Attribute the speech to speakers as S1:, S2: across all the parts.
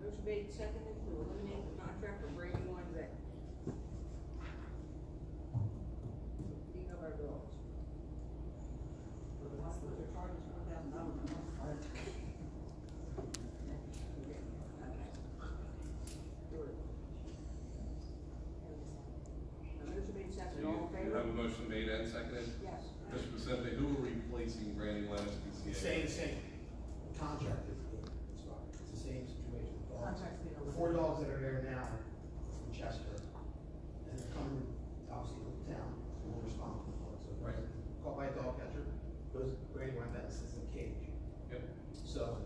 S1: Mr. Biggs seconded to eliminate the contract and bring one back. Clean up our dogs. Good. Now, Mr. Biggs
S2: So
S1: seconded,
S2: you,
S1: all in
S2: you have a
S1: favor?
S2: motion made and seconded?
S1: Yes.
S2: Mr. Vicente, who are replacing Randy Lennox, PCA?
S3: Same, same contract is good, it's fine, it's the same situation. with dogs.
S4: Contract's been
S3: The four dogs that are there now from Chester, and they're coming, obviously, to the town, and we're responsible for it, so. if they're Caught by a dog catcher, goes, Brady went back, sits in the cage.
S2: Yep.
S3: So,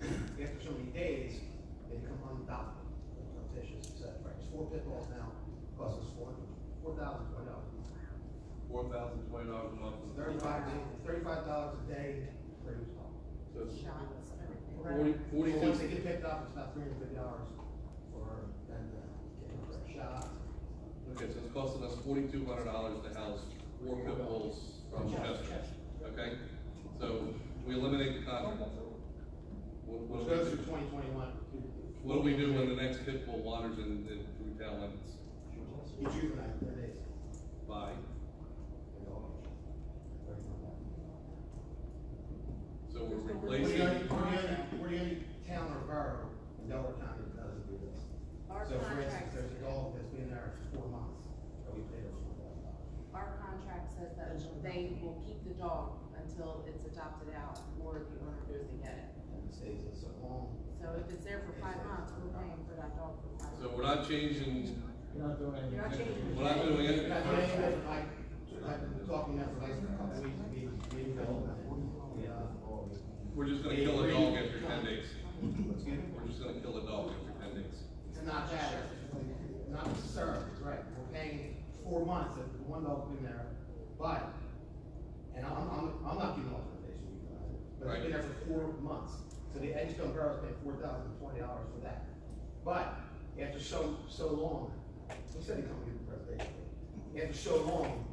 S3: after so many days, they become unadoptable, contentious, et cetera. There's four pit bulls now, cost us four, four thousand twenty dollars.
S2: Four thousand twenty dollars a month. is
S3: Thirty-five, thirty-five dollars a day for each dog.
S2: So it's
S4: shots, everything.
S2: forty,
S3: So once they
S2: forty-two,
S3: get picked up, it's about three hundred fifty dollars for them to get their shot.
S2: okay, so it's costing us forty-two hundred dollars to house four pit bulls from Chester, okay? So we eliminate the contract. What, what,
S3: Which goes
S2: do
S3: through twenty twenty-one.
S2: we- what do we do when the next pit bull wanders in, in through town limits?
S3: You juvenile, they're days.
S2: By,
S3: They're all aged.
S2: so we're
S3: We're the
S2: replacing,
S3: only, we're the only, we're the only town or borough in Delaware County that doesn't do this.
S4: Our
S3: So for instance,
S4: contract,
S3: there's a dog that's been there for four months, that we paid her four thousand dollars.
S4: our contract says that they will keep the dog until it's adopted out or the owner goes and get it.
S3: And it stays in so long.
S4: So if it's there for five months, we're paying for that dog for five
S2: so
S4: months.
S2: we're not changing,
S5: You're not doing anything.
S1: You're not changing the
S2: we're not
S1: name.
S2: doing anything.
S3: But I think that I, I've been talking now for like a couple weeks, we, we, we, uh,
S2: We're just gonna kill a dog after ten days. We're just gonna kill a dog after ten days.
S3: It's not that, it's not necessarily, it's right, we're paying four months, if one dog's been there, but, and I'm, I'm, I'm not giving authorization, you guys, but it's been there for four months, so the Edgecombe Borough's paying four thousand twenty dollars for that. But, after so, so long, we said he come here for presentation, after so long,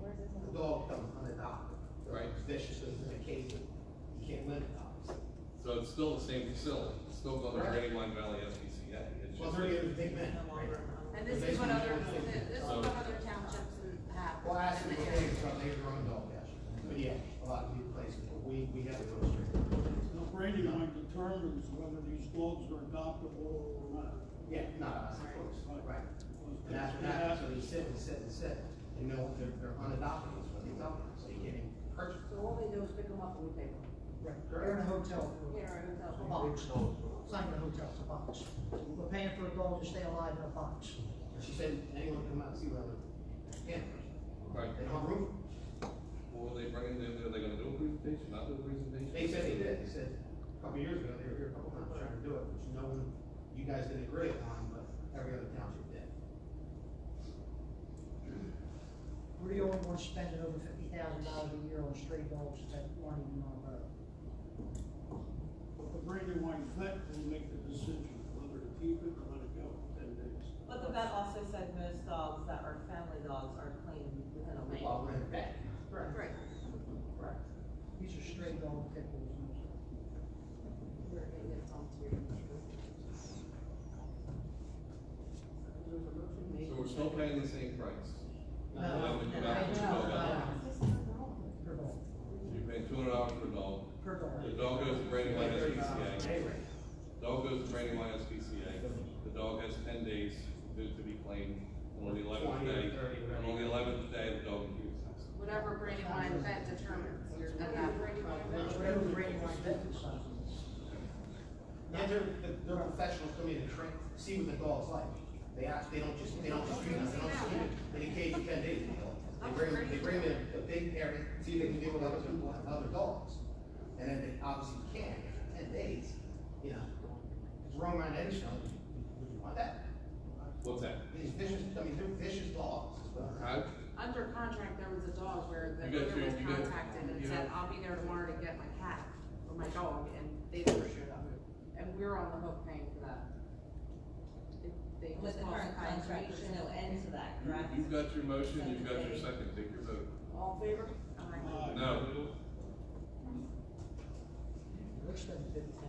S3: the dog comes unadopted.
S2: Right.
S3: It's Vicious, so it's in a cage, you can't live it, obviously.
S2: So it's still the same facility, it's still going to
S3: Right.
S2: Brady Line Valley SPCA. It's
S3: Well,
S2: just-
S3: they're giving big men, right?
S4: And this is what other, this is what other townships have.
S3: Well, I asked them if they were from, they were on dog dash, but yeah, a lot of these places, but we, we have those.
S6: The Brady line determines whether these dogs are adoptable or not.
S3: Yeah, not us, of course, right. And that's what happens, so they sit and sit and sit, and know they're, they're unadopted, is what they tell them, so you can't even purchase.
S1: So all they do is pick them up and we pay them.
S5: Right, they're in a hotel. for-
S1: Yeah, right, that's
S5: A
S1: all.
S5: box. It's not even a hotel, it's a box. We're paying for a dog to stay alive in a box.
S3: And She said, anyone come out and see what I can.
S2: Right,
S3: They don't roof,
S2: what were they bringing, are they gonna do a presentation, not do a presentation?
S3: they said they did, they said, a couple years ago, they were here a couple times trying to do it, which no one, you guys didn't agree upon, but every other township did.
S5: We're the only ones spending over fifty thousand dollars a year on stray dogs that aren't even on our road.
S6: The Brady line vet will make the decision whether to keep it or let it go in ten days.
S7: But the vet also said most dogs that are family dogs are claimed within a week.
S3: While we're in the back. Correct.
S1: Right.
S3: Correct.
S5: These are stray dog pit bulls.
S4: We're gonna get some to.
S1: There's a motion made.
S2: So we're still paying the same price,
S3: No,
S2: would you not-
S5: Per dog,
S2: you're paying two hundred dollars for a dog,
S5: per dog.
S2: the dog goes to Brady Line SPCA,
S3: Anyway,
S2: dog goes to Brady Line SPCA, the dog has ten days to, to be claimed, and on the eleventh
S3: 20 or
S2: day,
S3: 30, whatever.
S2: and on the eleventh day, the dog leaves.
S4: Whatever Brady line vet determines, you're gonna have.
S5: Whatever Brady Line vet decides.
S3: And they're, they're- they're professionals coming in and train, see what the dog's like. They act, they don't just, they don't just treat them, they don't just keep them in a cage for ten days. They bring, them- they bring them in a big area, see if they can deal with other people, and other dogs. And then they obviously can, after ten days, you know. It's wrong around any show, would you want that?
S2: What's that?
S3: These vicious, I mean, they're vicious dogs. is what I'm-
S2: How,
S4: Under contract, there was a dog where the
S2: You got
S4: owner was
S2: your- you got-
S4: contacted and
S2: you
S4: said,
S2: got-
S4: I'll be there tomorrow to get my cat or my dog, and they never showed up. And we're on the hook paying for that. If They
S7: With
S4: just
S7: the
S4: lost
S7: current contract, there's no end to that,
S2: you,
S7: correct?
S2: you've got your motion, you've got your second, take your vote.
S1: All in favor?
S6: Uh,
S4: All right.
S6: Aye.
S2: No,
S5: We're spending fifty